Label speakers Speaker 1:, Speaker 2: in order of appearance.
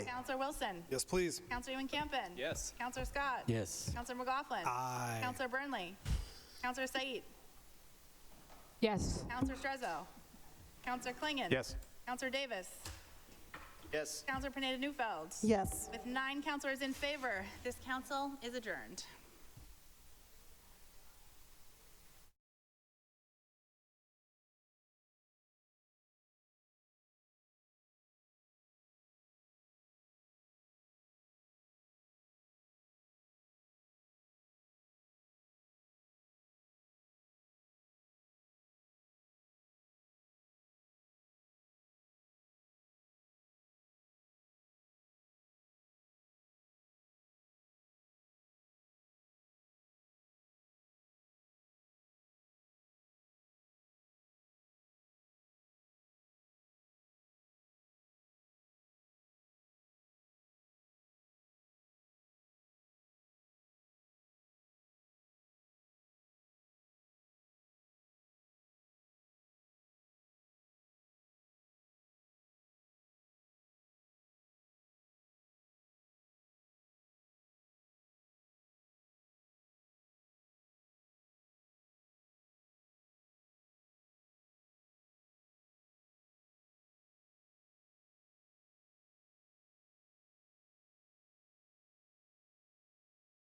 Speaker 1: Counselor Wilson.
Speaker 2: Yes, please.
Speaker 1: Counselor Ewan-Campen.
Speaker 3: Yes.
Speaker 1: Counselor Scott.
Speaker 4: Yes.
Speaker 1: Counselor McLaughlin.
Speaker 2: Aye.
Speaker 1: Counselor Burnley. Counselor Said.
Speaker 5: Yes.
Speaker 1: Counselor Strezzo. Counselor Klingon.
Speaker 6: Yes.
Speaker 1: Counselor Davis.
Speaker 3: Yes.
Speaker 1: Counselor Pineda Newfeld.
Speaker 7: Yes.
Speaker 1: With nine counselors in favor, this council is adjourned.